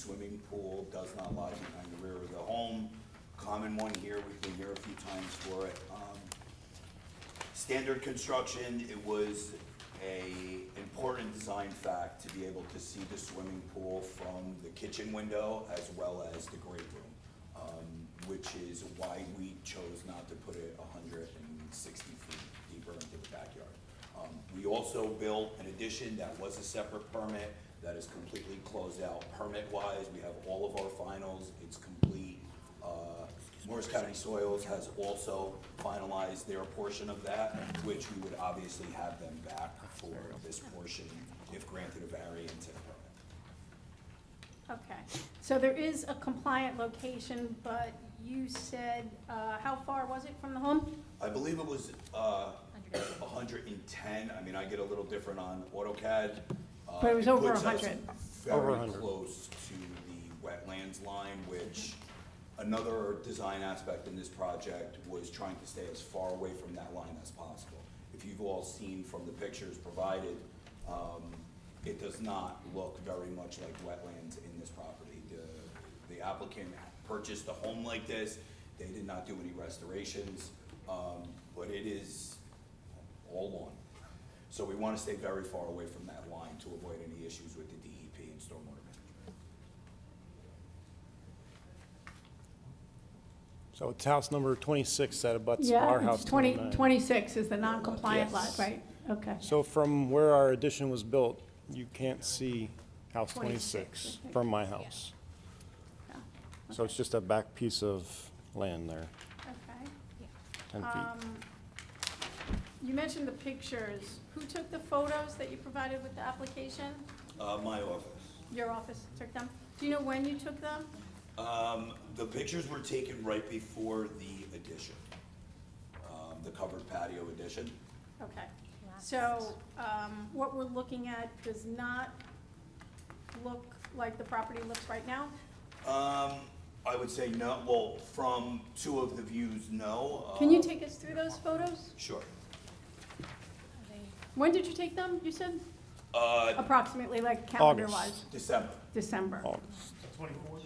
swimming pool does not lie behind the rear of the home. Common one here, we've been here a few times for it. Um, Standard construction, it was a important design fact to be able to see the swimming pool from the kitchen window as well as the great room, um, which is why we chose not to put it hundred and sixty feet deeper into the backyard. Um, we also built an addition that was a separate permit that is completely closed out permit-wise. We have all of our finals, it's complete. Uh, Morris County Soils has also finalized their portion of that, which we would obviously have them back for this portion if granted a variance and a permit. Okay, so there is a compliant location, but you said, uh, how far was it from the home? I believe it was, uh, hundred and ten, I mean, I get a little different on AutoCAD. Uh, But it was over puts us 100. Over Very 100. close to the wetlands line, which another design aspect in this project was trying to stay as far away from that line as possible. If you've all seen from the pictures provided, um, it does not look very much like wetlands in this property. The- The applicant purchased a home like this, they did not do any restorations, um, but it is all lawn. So we want to stay very far away from that line to avoid any issues with the DEP and stormwater management. So it's house number twenty-six that abuts our Yeah, house it's twenty, number nine. twenty-six is the non-compliant lot, Yes. right? Okay. So from where our addition was built, you can't see house 26, twenty-six I think. from my house. Yeah, So it's just a back piece of land there, Okay. ten feet. Um, You mentioned the pictures. Who took the photos that you provided with the application? Uh, my office. Your office took them? Do you know when you took them? Um, the pictures were taken right before the addition, um, the covered patio addition. Okay, so, um, what we're looking at does not look like the property looks right now? Um, I would say no, well, from two of the views, no. Can you Uh, take us through those photos? Sure. When did you take them, you said? Uh, Approximately, like calendar-wise? August. December, December. Oh, Twenty-fourth?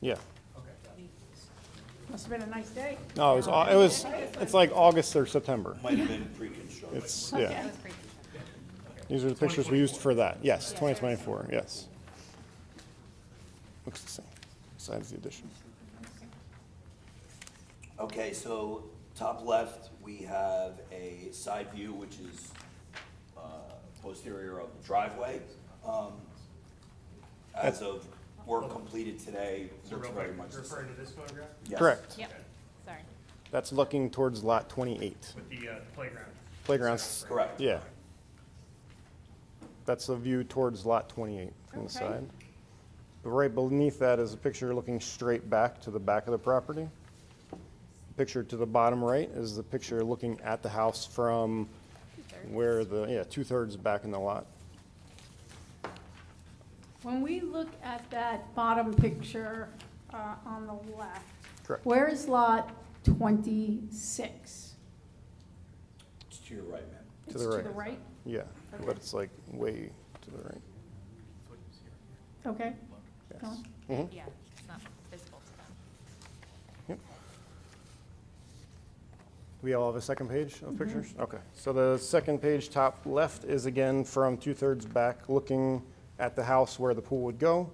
Yeah, Must've been a nice day. no, it was, au- it was, it's like August or September. might have been pre-construction. It's, Okay. yeah, these are the pictures we used for that, yes, twenty twenty-four, yes. Looks the same, besides the addition. Okay, so top left, we have a side view, which is uh, posterior of the driveway. Um, As of work completed today, So looks real very quick, much you're the referring same. to this photograph Yes. Correct, Yep, sorry. that's looking towards lot twenty-eight. with the uh, playground? Playground's Correct. Yeah. That's a view towards lot 28 from the Okay. side. But Right beneath that is a picture looking straight back to the back of the property. Picture to the bottom right is the picture looking at the house from where the, yeah, two-thirds back in the lot. When we look at that bottom picture, uh, on the left. Correct. Where is lot twenty-six? It's to your right, ma'am. To the It's to the right, Yeah, but it's like way to the right. okay? Go Yes. on. Yeah, it's not visible to them. We all have a second page of pictures? Okay. So the second page, top left, is again from two-thirds back, looking at the house where the pool would go.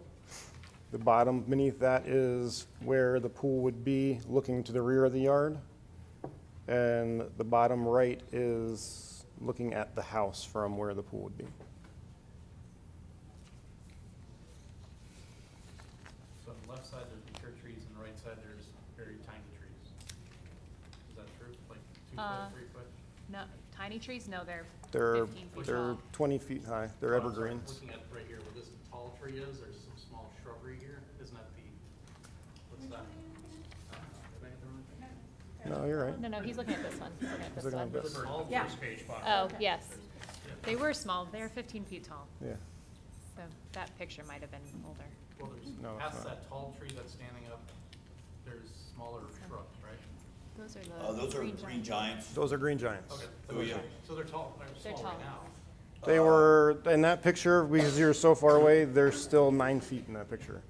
The bottom beneath that is where the pool would be, looking to the rear of the yard. And the bottom right is looking at the house from where the pool would be. So on the left side, there's mature trees, and the right side, there's very tiny trees. Is that true? Like two Uh, foot, three foot? No, tiny trees, no, they're They're, fifteen feet they're tall. 20 feet high, Oh, they're I'm sorry, evergreens. Looking at right here, where this tall tree is, there's some small shrubbery here. Isn't that the, what's that? I don't know. Am I in the wrong thing? No, you're right. No, no, he's looking at this one, he's looking at this looking at one. this. Those are all Yeah. first page photos. Oh, yes. They were small, they're fifteen feet tall, Yeah. so that picture might have been older. Well, there's, No, it's past not. that tall tree that's standing up, there's smaller shrubs, right? Those are Uh, the Those are green green giants. giants. Those are green giants. Okay, Oh, yeah. so they're tall, they're They're small right tall. now. They were, in that picture, because you're so far away, they're still nine feet in that picture.